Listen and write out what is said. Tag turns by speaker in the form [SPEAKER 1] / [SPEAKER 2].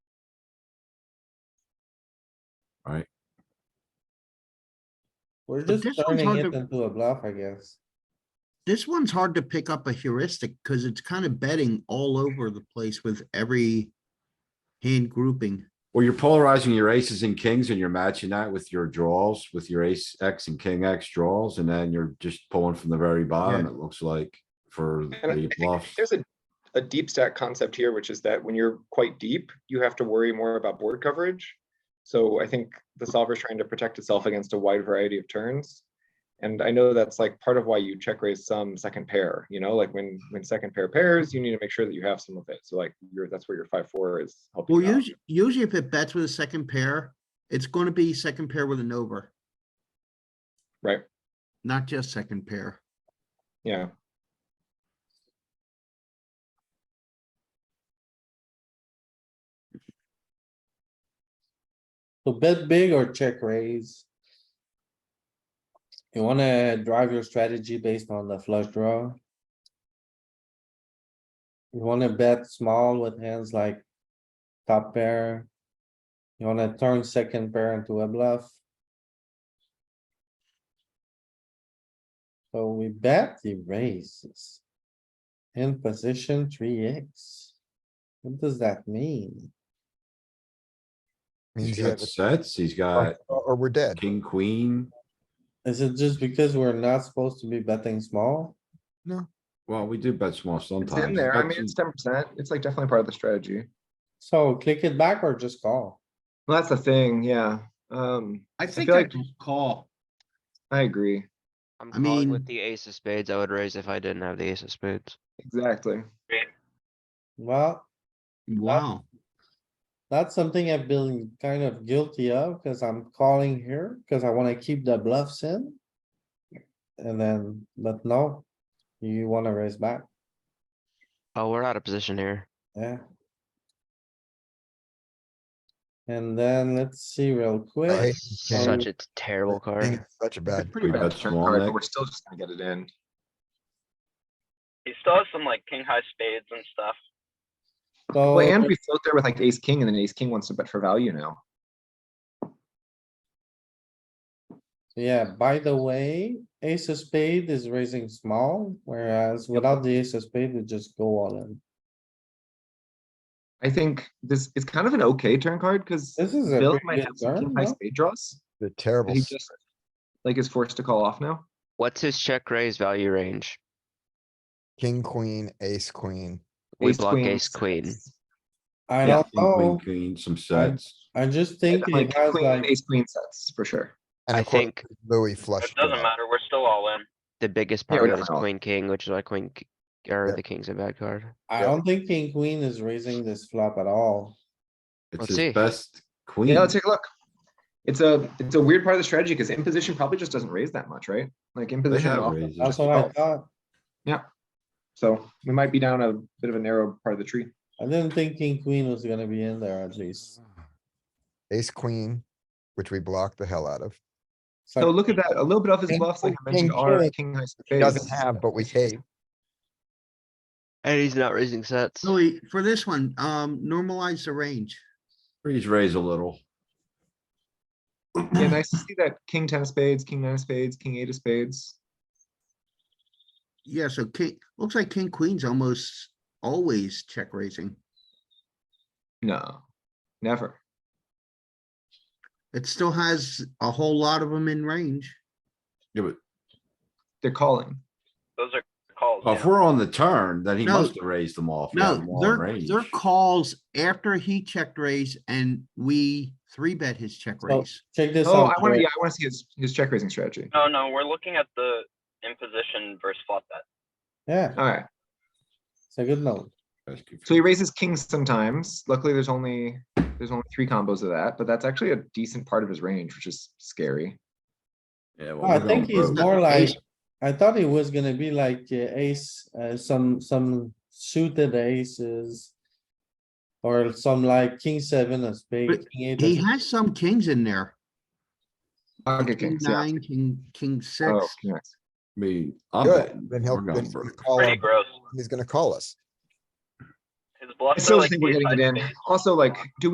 [SPEAKER 1] right?
[SPEAKER 2] We're
[SPEAKER 3] But
[SPEAKER 2] just
[SPEAKER 3] this one's
[SPEAKER 2] turning
[SPEAKER 3] hard
[SPEAKER 2] it
[SPEAKER 3] to-
[SPEAKER 2] into a bluff, I guess.
[SPEAKER 3] This one's hard to pick up a heuristic because it's kind of betting all over the place with every hand grouping.
[SPEAKER 1] Well, you're polarizing your aces and kings and you're matching that with your draws, with your ace X and king X draws, and then you're just pulling from the very bottom, it looks like, for
[SPEAKER 4] And I
[SPEAKER 1] the
[SPEAKER 4] think
[SPEAKER 1] bluffs.
[SPEAKER 4] There's a, a deep stack concept here, which is that when you're quite deep, you have to worry more about board coverage. So I think the solver is trying to protect itself against a wide variety of turns. And I know that's like part of why you check raise some second pair, you know, like when, when second pair pairs, you need to make sure that you have some of it. So like you're, that's where your five, four is helping.
[SPEAKER 3] Well,
[SPEAKER 4] you out.
[SPEAKER 3] usually, usually if it bets with a second pair, it's going to be second pair with an over,
[SPEAKER 4] Right,
[SPEAKER 3] not just second pair.
[SPEAKER 4] yeah.
[SPEAKER 2] So bet big or check raise. You wanna drive your strategy based on the flush draw. You wanna bet small with hands like top pair. You wanna turn second pair into a bluff. So we bet the raises. In position three X. What does that mean?
[SPEAKER 1] He's
[SPEAKER 5] Means you
[SPEAKER 1] got
[SPEAKER 5] have a-
[SPEAKER 1] sets, he's
[SPEAKER 5] or
[SPEAKER 1] got
[SPEAKER 5] or we're dead.
[SPEAKER 1] king, queen.
[SPEAKER 2] Is it just because we're not supposed to be betting small?
[SPEAKER 1] Well, we do bet small
[SPEAKER 4] It's
[SPEAKER 1] sometimes.
[SPEAKER 4] in there. I
[SPEAKER 1] That's
[SPEAKER 4] mean,
[SPEAKER 1] in-
[SPEAKER 4] it's ten percent. It's like definitely part of the strategy.
[SPEAKER 2] So click it back or just call?
[SPEAKER 4] Well, that's the thing, yeah. Um,
[SPEAKER 3] I think
[SPEAKER 4] feel
[SPEAKER 3] I
[SPEAKER 4] like-
[SPEAKER 3] just call.
[SPEAKER 4] I agree,
[SPEAKER 6] I'm
[SPEAKER 3] I
[SPEAKER 6] calling with
[SPEAKER 3] mean-
[SPEAKER 6] the ace of spades. I would raise if I didn't have the ace of spades.
[SPEAKER 4] exactly.
[SPEAKER 2] Well,
[SPEAKER 3] Wow.
[SPEAKER 6] Uh,
[SPEAKER 2] that's something I've been kind of guilty of, cause I'm calling here, cause I wanna keep the bluffs in. And then, but no, you wanna raise back,
[SPEAKER 6] Oh, we're out of position here.
[SPEAKER 2] yeah. And then let's see real
[SPEAKER 5] I hate
[SPEAKER 2] quick,
[SPEAKER 5] this game.
[SPEAKER 6] Such a terrible
[SPEAKER 5] I think
[SPEAKER 6] card.
[SPEAKER 5] it's Such a
[SPEAKER 4] It's a
[SPEAKER 5] bad.
[SPEAKER 4] pretty
[SPEAKER 1] We
[SPEAKER 4] bad
[SPEAKER 1] bet
[SPEAKER 4] turn
[SPEAKER 1] small
[SPEAKER 4] card, but
[SPEAKER 1] neck.
[SPEAKER 4] we're still just gonna get it in.
[SPEAKER 7] He still has some like king high spades and stuff.
[SPEAKER 2] so,
[SPEAKER 4] Well,
[SPEAKER 2] Oh,
[SPEAKER 4] and we float there with like ace king and then ace king wants to bet for value now.
[SPEAKER 2] yeah, by the way, ace of spade is raising small, whereas without the ace of spade, we just go all in.
[SPEAKER 4] I think this is kind of an okay turn card because
[SPEAKER 2] This is a
[SPEAKER 4] Bill
[SPEAKER 2] pretty
[SPEAKER 4] might
[SPEAKER 2] good
[SPEAKER 4] have some king
[SPEAKER 2] turn,
[SPEAKER 4] high
[SPEAKER 2] no?
[SPEAKER 4] spade draws.
[SPEAKER 5] The
[SPEAKER 4] that
[SPEAKER 5] terrible.
[SPEAKER 4] He
[SPEAKER 5] s-
[SPEAKER 4] just like is forced to call off now.
[SPEAKER 6] What's his check raise value range?
[SPEAKER 5] King, queen, ace, queen.
[SPEAKER 6] We block ace
[SPEAKER 4] sets.
[SPEAKER 6] queen.
[SPEAKER 2] I
[SPEAKER 1] Yeah,
[SPEAKER 2] don't
[SPEAKER 1] king,
[SPEAKER 2] know,
[SPEAKER 4] oh.
[SPEAKER 1] Queen, queen,
[SPEAKER 5] Hmm.
[SPEAKER 1] some sets.
[SPEAKER 2] I just
[SPEAKER 4] Yeah,
[SPEAKER 2] think you
[SPEAKER 4] Like
[SPEAKER 2] guys
[SPEAKER 4] queen,
[SPEAKER 2] like,
[SPEAKER 4] ace queen sets for sure.
[SPEAKER 5] And
[SPEAKER 6] I
[SPEAKER 5] of course,
[SPEAKER 6] think
[SPEAKER 5] Louis
[SPEAKER 7] It
[SPEAKER 5] flushed. it
[SPEAKER 7] doesn't
[SPEAKER 5] out.
[SPEAKER 7] matter. We're still all in.
[SPEAKER 6] the biggest
[SPEAKER 4] Yeah,
[SPEAKER 6] part
[SPEAKER 4] we
[SPEAKER 6] of it is
[SPEAKER 4] don't know.
[SPEAKER 6] queen, king, which is why queen, k- or
[SPEAKER 5] Yeah.
[SPEAKER 6] the king's a bad card.
[SPEAKER 2] I don't think king queen is raising this flop at all.
[SPEAKER 1] It's
[SPEAKER 6] Let's
[SPEAKER 1] his
[SPEAKER 6] see.
[SPEAKER 1] best queen.
[SPEAKER 4] Yeah, let's take a look. It's a it's a weird part of the strategy because imposition probably just doesn't raise that much, right? Like imposition.
[SPEAKER 1] have
[SPEAKER 4] often
[SPEAKER 1] raises.
[SPEAKER 2] That's
[SPEAKER 4] just
[SPEAKER 2] what I
[SPEAKER 4] calls.
[SPEAKER 2] thought.
[SPEAKER 4] So we might be down a bit of a narrow part of the tree.
[SPEAKER 2] I didn't think king queen was gonna be in there at least.
[SPEAKER 5] Ace, queen, which we blocked the hell out of.
[SPEAKER 2] It's
[SPEAKER 4] So
[SPEAKER 2] like,
[SPEAKER 4] look at that. A little bit of his
[SPEAKER 5] King-
[SPEAKER 4] bluffs, like I
[SPEAKER 5] king-
[SPEAKER 4] mentioned, are
[SPEAKER 5] king
[SPEAKER 4] king high
[SPEAKER 5] He Doesn't
[SPEAKER 4] spades.
[SPEAKER 5] have, but we hate.
[SPEAKER 6] And he's not raising sets.
[SPEAKER 3] Louis, for this one, um, normalize the range.
[SPEAKER 1] Freeze raise a little.
[SPEAKER 4] Yeah, nice to see that king ten of spades, king nine of spades, king eight of spades.
[SPEAKER 3] Yeah, so king, looks like king queen's almost always check raising.
[SPEAKER 4] No, never.
[SPEAKER 3] It still has a whole lot of them in range.
[SPEAKER 1] Yeah, but
[SPEAKER 4] They're calling.
[SPEAKER 7] Those are calls.
[SPEAKER 4] Oh,
[SPEAKER 1] if
[SPEAKER 7] yeah.
[SPEAKER 1] we're on the turn, then he
[SPEAKER 3] No.
[SPEAKER 1] must have raised them off. yeah,
[SPEAKER 3] No,
[SPEAKER 1] long
[SPEAKER 3] their,
[SPEAKER 1] range.
[SPEAKER 3] their calls after he checked raise and we three bet his check raise.
[SPEAKER 2] Check this
[SPEAKER 4] Oh,
[SPEAKER 2] out.
[SPEAKER 4] I wanna,
[SPEAKER 2] Joey.
[SPEAKER 4] yeah, I wanna see his, his check raising strategy.
[SPEAKER 7] No, no, we're looking at the imposition versus flop bet.
[SPEAKER 2] Yeah,
[SPEAKER 4] Alright,
[SPEAKER 2] it's a good note.
[SPEAKER 1] That's
[SPEAKER 4] so he raises kings sometimes. Luckily, there's only, there's only three combos of that, but that's actually a decent part of his range, which is scary.
[SPEAKER 1] Yeah,
[SPEAKER 2] No,
[SPEAKER 1] well,
[SPEAKER 2] I
[SPEAKER 1] we're
[SPEAKER 2] think
[SPEAKER 1] going
[SPEAKER 2] he's
[SPEAKER 1] broke.
[SPEAKER 2] more like, I thought he was gonna be like uh, ace, uh, some, some suited aces. Or some like king seven of spade.
[SPEAKER 3] But
[SPEAKER 2] king eight of
[SPEAKER 3] He
[SPEAKER 2] spade.
[SPEAKER 3] has some kings in there.
[SPEAKER 4] Pocket
[SPEAKER 3] King
[SPEAKER 4] kings, yeah.
[SPEAKER 3] nine, king, king
[SPEAKER 4] Oh,
[SPEAKER 3] six.
[SPEAKER 4] king X.
[SPEAKER 1] I mean, I'm
[SPEAKER 5] Good.
[SPEAKER 1] betting.
[SPEAKER 5] Then he'll,
[SPEAKER 1] We're
[SPEAKER 5] then
[SPEAKER 1] going
[SPEAKER 5] he's gonna
[SPEAKER 1] broke.
[SPEAKER 4] Oh.
[SPEAKER 5] call,
[SPEAKER 7] Pretty
[SPEAKER 5] our-
[SPEAKER 7] gross.
[SPEAKER 5] he's gonna call us.
[SPEAKER 7] His bluffs
[SPEAKER 4] I
[SPEAKER 7] are
[SPEAKER 4] still
[SPEAKER 7] like.
[SPEAKER 4] think we're
[SPEAKER 7] ace
[SPEAKER 4] getting
[SPEAKER 7] high
[SPEAKER 4] it in.
[SPEAKER 7] spades.
[SPEAKER 4] Also, like, do